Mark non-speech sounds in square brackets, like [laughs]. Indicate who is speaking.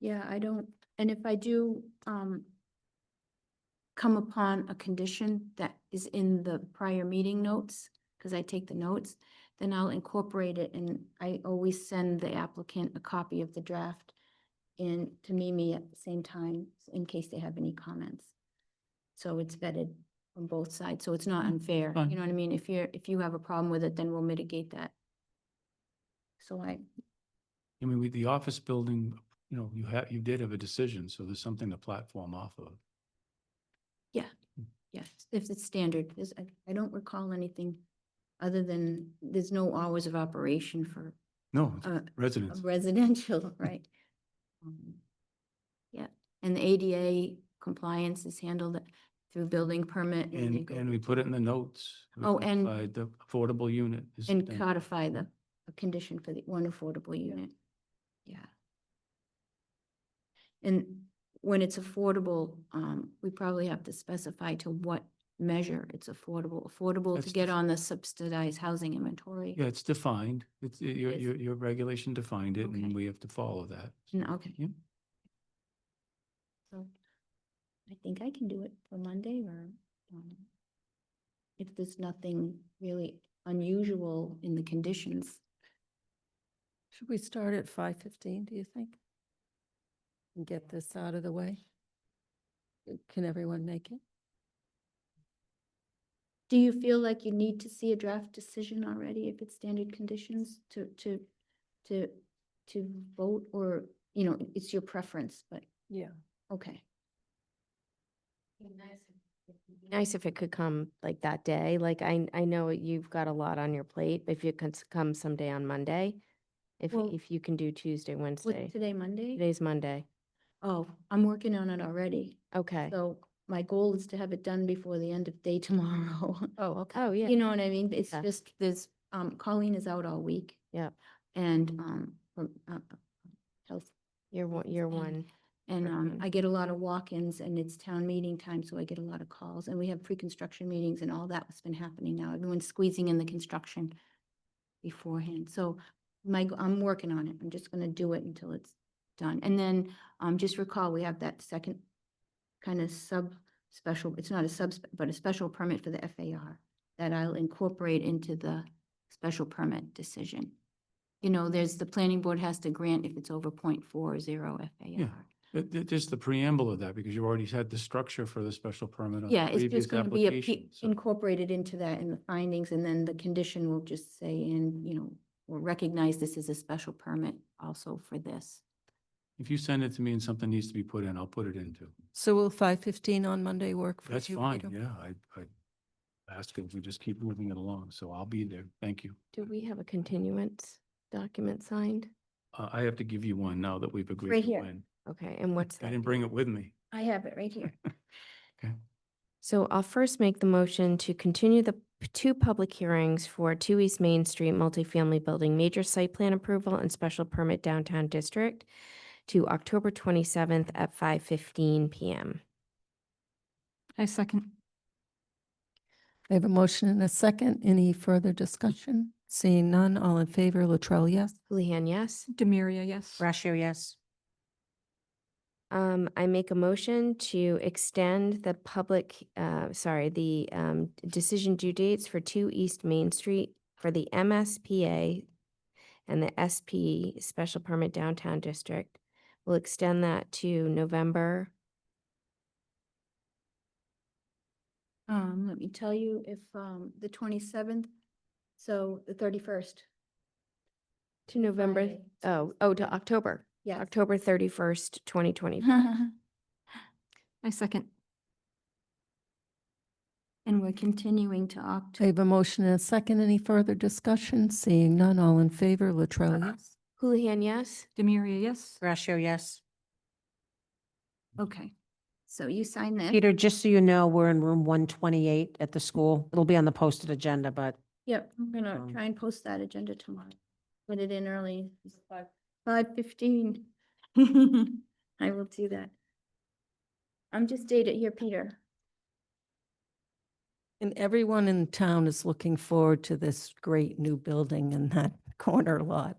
Speaker 1: Yeah, I don't, and if I do, um, come upon a condition that is in the prior meeting notes, because I take the notes, then I'll incorporate it and I always send the applicant a copy of the draft and to Mimi at the same time, in case they have any comments. So it's vetted from both sides, so it's not unfair,
Speaker 2: Fine.
Speaker 1: you know what I mean? If you're, if you have a problem with it, then we'll mitigate that. So I,
Speaker 2: I mean, with the office building, you know, you have, you did have a decision, so there's something to platform off of.
Speaker 1: Yes, if it's standard, there's, I, I don't recall anything other than, there's no hours of operation for
Speaker 2: No, it's
Speaker 1: a a
Speaker 2: residents,
Speaker 1: residential,
Speaker 2: [laughs]
Speaker 1: right? Um, Yeah, and the ADA compliance is handled through building permit. they
Speaker 2: and,
Speaker 1: go-
Speaker 2: and we put it in the notes. We
Speaker 1: Oh, and-
Speaker 2: codified The affordable unit. is
Speaker 1: And
Speaker 2: done.
Speaker 1: codify the, a condition for the one affordable unit. Yeah. And when it's affordable, um, we probably have to specify to what measure it's affordable, affordable to
Speaker 2: That's
Speaker 1: get
Speaker 2: def-
Speaker 1: on the subsidized housing inventory.
Speaker 2: Yeah, it's defined. It's, y- your,
Speaker 1: Yes.
Speaker 2: your, your regulation defined it
Speaker 1: Okay.
Speaker 2: and we have to follow that.
Speaker 1: No, okay.
Speaker 2: Yeah.
Speaker 1: So I think I can do it for Monday or um, if there's nothing really unusual in the conditions,
Speaker 3: Should we start at five fifteen, do you think? And get this out of the way? Uh, Can everyone make it?
Speaker 1: do you feel like you need to see a draft decision already if it's standard conditions to, to, to, to vote or, you know, it's your preference, but,
Speaker 3: Yeah.
Speaker 1: okay.
Speaker 4: Nice if it could come like that day. Like I, I know you've got a lot on your plate, but if it could s- come someday on Monday, if,
Speaker 1: Well,
Speaker 4: if you can do Tuesday, Wednesday,
Speaker 1: What's today, Monday?
Speaker 4: today's Monday.
Speaker 1: Oh, I'm working on it already.
Speaker 4: Okay.
Speaker 1: So my goal is to have it done before the end of day [laughs] tomorrow.
Speaker 3: Oh, okay.
Speaker 4: Oh, yeah.
Speaker 1: You know what I mean? It's
Speaker 4: Yeah.
Speaker 1: just, there's, um, Colleen is out all week.
Speaker 4: Yep.
Speaker 1: And,
Speaker 4: Mm-hmm.
Speaker 1: um, from, uh, uh, health,
Speaker 4: You're one,
Speaker 1: it's
Speaker 4: you're
Speaker 1: in.
Speaker 4: one.
Speaker 1: and, um,
Speaker 4: Perfect.
Speaker 1: I get a lot of walk-ins and it's town meeting time, so I get a lot of calls. And we have pre-construction meetings and all that's been happening now. Everyone's squeezing in the construction beforehand. So my, g- I'm working on it. I'm just gonna do it until it's done. And then, um, just recall, we have that second kind of sub special, it's not a sub, but a special permit for the FAR that I'll incorporate into the special permit decision. You know, there's, the planning board has to grant if it's over 0.40 FAR.
Speaker 2: But th- just the preamble of that, because you already had the structure for the special permit on
Speaker 1: Yeah,
Speaker 2: the
Speaker 1: it's
Speaker 2: previous
Speaker 1: just gonna be a p-
Speaker 2: application. so-
Speaker 1: incorporated into that in the findings, and then the condition will just say, and, you know, will recognize this is a special permit also for this.
Speaker 2: If you send it to me and something needs to be put in, I'll put it into.
Speaker 3: So will five fifteen on Monday work for you?
Speaker 2: That's fine,
Speaker 3: Peter?
Speaker 2: yeah, I, I ask if we just keep moving it along, so I'll be there, thank you.
Speaker 4: Do we have a continuance document signed?
Speaker 2: Uh, I have to give you one now that we've agreed.
Speaker 1: Right
Speaker 2: to
Speaker 1: here.
Speaker 2: when.
Speaker 4: Okay, and what's
Speaker 2: I
Speaker 4: that?
Speaker 2: didn't bring it with me.
Speaker 1: I have it right here.
Speaker 4: So I'll first make the motion to continue the p- two public hearings for Two East Main Street multifamily building major site plan approval and special permit downtown district to October twenty-seventh at five fifteen PM.
Speaker 5: I second.
Speaker 3: I have a motion and a second. Any further discussion? Seeing none, all in favor, Latrell, yes?
Speaker 4: Houlihan, yes?
Speaker 5: Demiria, yes.
Speaker 6: Brashear, yes.
Speaker 4: Um, I make a motion to extend the public, uh, sorry, the, um, decision due dates for two East Main Street for the MSPA and the SP Special Permit Downtown District. We'll extend that to November,
Speaker 1: Um, let me tell you if, um, the twenty-seventh, so the thirty-first.
Speaker 4: to November,
Speaker 1: Friday.
Speaker 4: oh, oh, to October,
Speaker 1: Yes.
Speaker 4: October thirty-first, twenty twenty.
Speaker 1: [laughs]
Speaker 5: I second.
Speaker 1: And we're continuing to
Speaker 3: I
Speaker 1: October.
Speaker 3: have a motion and a second. Any further discussion? Seeing none, all in favor, Latrell, yes?
Speaker 4: Houlihan, yes?
Speaker 5: Demiria, yes.
Speaker 6: Brashear, yes.
Speaker 1: Okay, so you sign this?
Speaker 6: Peter, just so you know, we're in room one twenty-eight at the school. It'll be on the posted agenda, but
Speaker 1: Yep, I'm gonna
Speaker 6: Um,
Speaker 1: try and post that agenda tomorrow. Put it in early. Five fifteen. [laughs] I will do that. I'm just dated here, Peter.
Speaker 3: And everyone in town is looking forward to this great new building in that [laughs] corner lot.